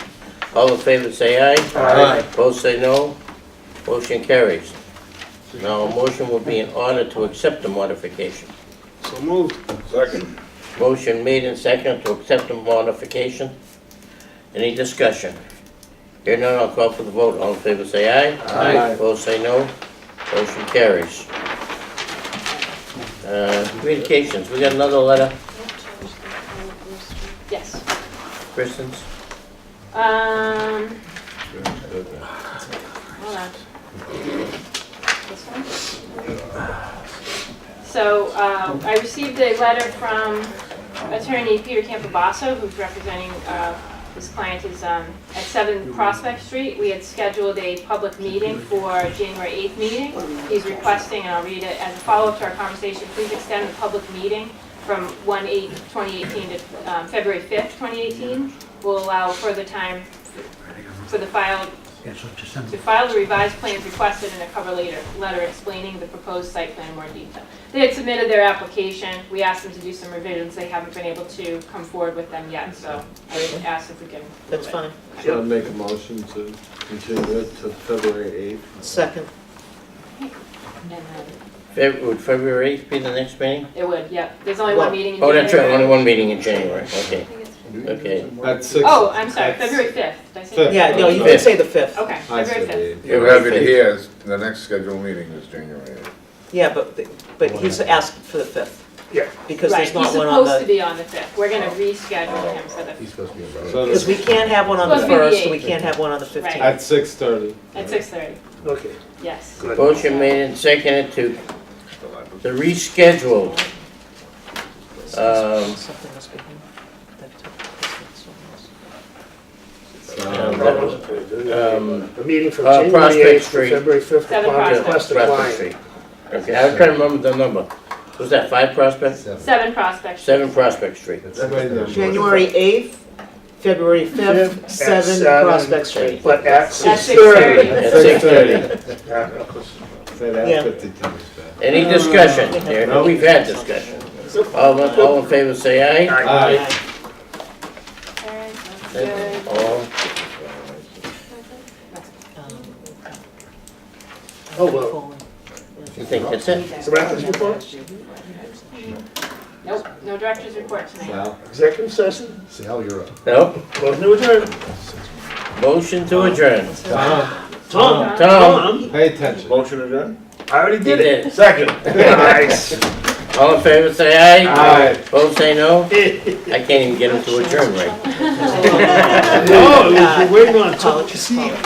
All in favor, say aye. Aye. Opposed, say no. Motion carries. Now, a motion would be in order to accept the modification. So moved. Second. Motion made and seconded to accept the modification. Any discussion? Here none, I'll call for the vote. All in favor, say aye. Aye. Opposed, say no. Motion carries. Uh, Communications, we got another letter, Yes. Kristen's. Um, hold on. This one? So, uh, I received a letter from attorney Peter Campobasso, who's representing, uh, his client is, um, at Seven Prospect Street. We had scheduled a public meeting for January eighth meeting. He's requesting, and I'll read it, as a follow-up to our conversation, please extend the public meeting from 1/8, 2018 to, um, February fifth, twenty eighteen. Will allow further time for the filed to file the revised plans requested in a cover later, letter explaining the proposed site plan in more detail. They had submitted their application, we asked them to do some revisions, they haven't been able to come forward with them yet, so I would ask if we can. move That's it. fine. So I'd make a motion to continue it to February 8th. Second, And then Feb- Would February 8th be the next meeting? It would, yep, there's only one Well- meeting in Oh, that's right, only January. one meeting in January, okay. Okay. At 6. Oh, I'm sorry, February fifth, did I say? that? Fifth. yeah, no, you can say the fifth. Okay, I February said fifth. 8th. You have it here, the next scheduled meeting is January eighth. Yeah, but, but he's asked for the fifth. Yeah. Because there's not one Right, he's on supposed to the, be on the fifth, we're Oh. gonna reschedule him for the, He's supposed to be So about because we can't have one on the Supposed to be the first, we eighth. can't have one on the Right. fifteenth. At 6:30. Oh. at six thirty, Okay. yes. Good. Motion made and seconded to the rescheduled Um, Something must be him. That took- that's what So, That wasn't very Um, good. A meeting from uh, January Prospect 8th Street. to February 5th Seven upon Prospect. request of Prospect client. Street. Okay, I was trying to remember the number. Was that five Prospect? Seven Prospect. Street. Seven Prospect Street. Wait a it was. minute. January eighth, February Fifth fifth, at seven seven. Prospect Street. But at At 6:30. At six thirty. Say that Yeah. 50 times fast. Any discussion? There- No. We've had discussion. All, in- all in favor, say aye. Aye. All right, that's good. All, Um, Oh, well. you think that's it? Is that this report? Nope, no director's report tonight. Well, Executive session? Sal, you're up. No? Motion to adjourn. Motion to adjourn. Tom, Tom. Tom. Uh-huh. pay attention. Motion adjourned? I already did it. Did Second. Nice. it. All in favor, say aye. Aye. Both say no? I can't even get them to adjourn right. No, we're waiting Oh, on Tom. Apologies, apologies.